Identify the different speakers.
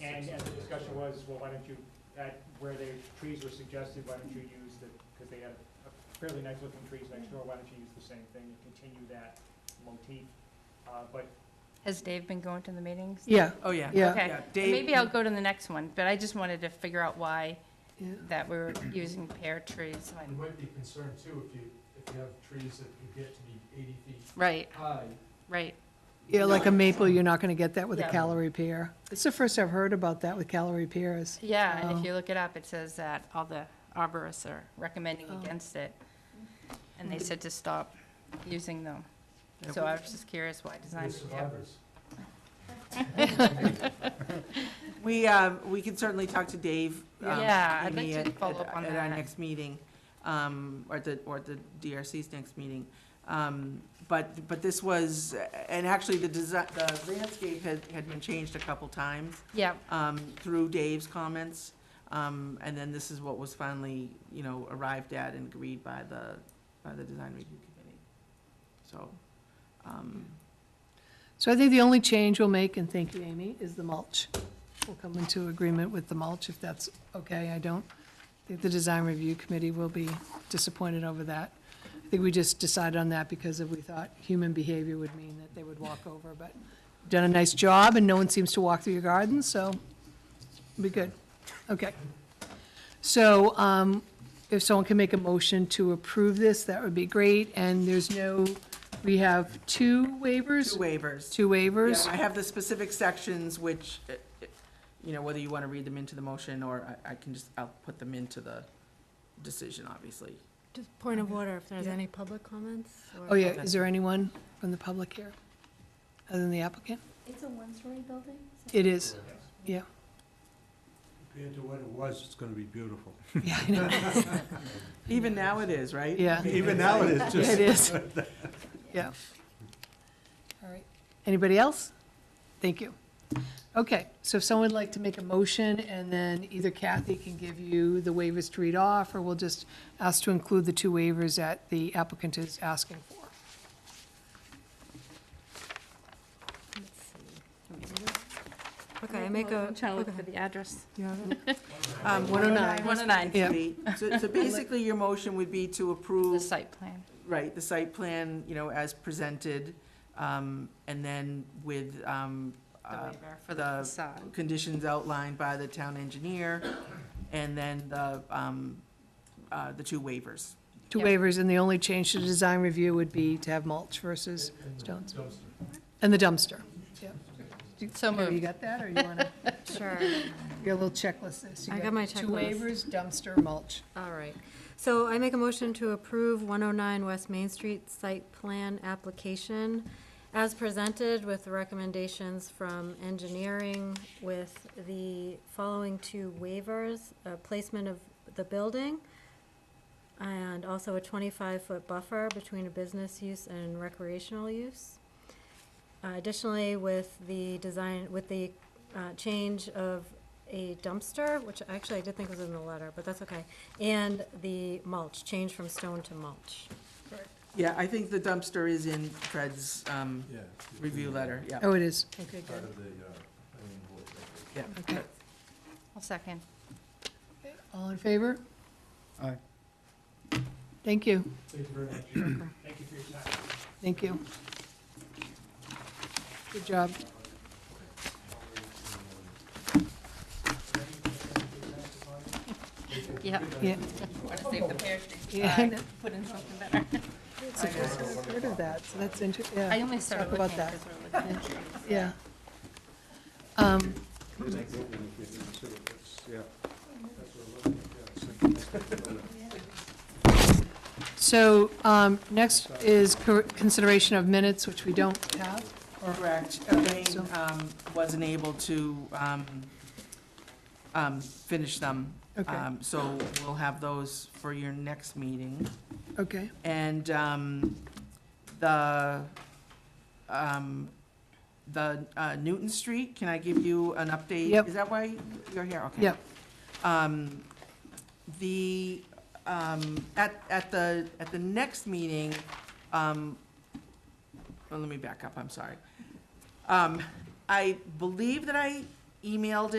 Speaker 1: And as the discussion was, well, why don't you, at where the trees were suggested, why don't you use the, because they had a fairly nice looking trees next door, why don't you use the same thing and continue that motif? Uh, But
Speaker 2: Has Dave been going to the meetings?
Speaker 3: Yeah,
Speaker 4: Oh, yeah.
Speaker 3: Yeah.
Speaker 2: Okay,
Speaker 4: Yeah, Dave-
Speaker 2: maybe I'll go to the next one, but I just wanted to figure out why
Speaker 3: yeah.
Speaker 2: that we're using pear trees.
Speaker 5: You might be concerned too, if you, if you have trees that could get to be eighty feet
Speaker 2: Right,
Speaker 5: high.
Speaker 2: right.
Speaker 3: Yeah, like a maple, you're not gonna get that with a
Speaker 2: Yeah.
Speaker 3: calorie pear. It's the first I've heard about that with calorie pears.
Speaker 2: Yeah, and
Speaker 3: Oh.
Speaker 2: if you look it up, it says that all the arborists are recommending
Speaker 3: Oh. Mm.
Speaker 2: against it. And they said to stop using them.
Speaker 4: Yeah.
Speaker 2: So I was just curious why
Speaker 5: You're
Speaker 2: design.
Speaker 5: survivors.
Speaker 4: We, uh, we can certainly talk to Dave. um,
Speaker 2: Yeah, I'd
Speaker 4: Amy,
Speaker 2: like to
Speaker 4: at-
Speaker 2: follow up on
Speaker 4: At our
Speaker 2: that.
Speaker 4: next meeting, um, or the, or the DRC's next meeting. Um, But, but this was, and actually, the design, the landscape had, had been changed a couple times
Speaker 2: Yeah,
Speaker 4: um, through Dave's comments. Um, And then this is what was finally, you know, arrived at and agreed by the, by the design review committee. So, um,
Speaker 3: So I think the only change we'll make, and thank you, Amy, is the mulch. We'll come into agreement with the mulch if that's okay. I don't think the design review committee will be disappointed over that. I think we just decided on that because if we thought human behavior would mean that they would walk over, but you've done a nice job and no one seems to walk through your garden, so be good. Okay. So, um, if someone can make a motion to approve this, that would be great. And there's no, we have two waivers?
Speaker 4: two waivers.
Speaker 3: Two waivers?
Speaker 4: Yeah, I have the specific sections which, eh, eh, you know, whether you want to read them into the motion or I, I can just, I'll put them into the decision, obviously.
Speaker 6: Just point of
Speaker 3: Okay.
Speaker 6: order, if there's
Speaker 3: Yeah.
Speaker 6: any public comments? or-
Speaker 3: Oh, yeah,
Speaker 4: Okay.
Speaker 3: is there anyone from the public here, other than the applicant?
Speaker 7: It's a one-story building? so-
Speaker 3: It is, yeah.
Speaker 8: Compared to what it was, it's gonna be beautiful.
Speaker 3: Yeah, I know.
Speaker 4: Even now it is, right?
Speaker 3: Yeah,
Speaker 8: Even now, it is
Speaker 3: it
Speaker 8: just,
Speaker 3: is, yeah. All right, anybody else? Thank you. Okay, so if someone would like to make a motion, and then either Kathy can give you the waivers to read off, or we'll just ask to include the two waivers that the applicant is asking for.
Speaker 6: Let's see. Okay, I make a,
Speaker 2: I'm trying to look
Speaker 6: okay.
Speaker 2: for the address.
Speaker 4: Um,
Speaker 3: 109.
Speaker 2: 109.
Speaker 3: Yeah.
Speaker 4: So, so basically, your motion would be to
Speaker 2: The
Speaker 4: approve,
Speaker 2: site plan.
Speaker 4: right, the site plan, you know, as presented, um, and then with, um,
Speaker 2: The
Speaker 4: uh,
Speaker 2: waiver for
Speaker 4: the
Speaker 2: the facade.
Speaker 4: conditions outlined by the town engineer, and then the, um, uh, the two waivers.
Speaker 3: Two
Speaker 2: Yeah.
Speaker 3: waivers, and the only change to the design review would be to have mulch versus
Speaker 5: And the
Speaker 3: stones.
Speaker 5: dumpster.
Speaker 3: And the dumpster.
Speaker 2: So
Speaker 3: Mary, You
Speaker 2: moved.
Speaker 3: got that, or you want to,
Speaker 6: Sure,
Speaker 3: your little checklist this? You
Speaker 6: I got my
Speaker 3: Two
Speaker 6: checklist.
Speaker 3: waivers, dumpster, mulch.
Speaker 6: all right. So I make a motion to approve 109 West Main Street site plan application as presented with the recommendations from engineering with the following two waivers, uh, placement of the building, and also a 25-foot buffer between a business use and recreational use. Uh, Additionally, with the design, with the uh, change of a dumpster, which actually I did think was in the letter, but that's okay, and the mulch, change from stone to mulch.
Speaker 4: Yeah, I think the dumpster is in Fred's um,
Speaker 8: yeah.
Speaker 4: review letter, yeah.
Speaker 3: Oh, it is, okay,
Speaker 8: Part
Speaker 3: good.
Speaker 8: of the, uh, planning board record.
Speaker 4: yeah.
Speaker 3: Okay.
Speaker 2: I'll second.
Speaker 3: All in favor?
Speaker 8: Aye.
Speaker 3: Thank you,
Speaker 5: Thank you very much.
Speaker 1: thank you for your time.
Speaker 3: thank you. Good job.
Speaker 2: Yeah.
Speaker 3: Yeah.
Speaker 2: Want to save the pear tree.
Speaker 3: Yeah, I know.
Speaker 2: Put in something better.
Speaker 3: It's the first time I've heard of that, so that's inter, yeah.
Speaker 2: I only started
Speaker 3: Talk about
Speaker 2: looking
Speaker 3: that.
Speaker 2: because we're looking at trees.
Speaker 3: Yeah. Um,
Speaker 8: Yeah.
Speaker 3: So, um, next is cor- consideration of minutes, which we don't have. or-
Speaker 4: Correct.
Speaker 3: Okay,
Speaker 4: Elaine,
Speaker 3: so-
Speaker 4: um, wasn't able to um, um, finish them.
Speaker 3: Okay,
Speaker 4: Um, So we'll have those for your next meeting.
Speaker 3: okay.
Speaker 4: And um, the, um, the uh, Newton Street, can I give you an update?
Speaker 3: Yep.
Speaker 4: Is that why you're here? Okay.
Speaker 3: Yep.
Speaker 4: Um, The, um, at, at the, at the next meeting, um, well, let me back up, I'm sorry. Um, I believe that I emailed it.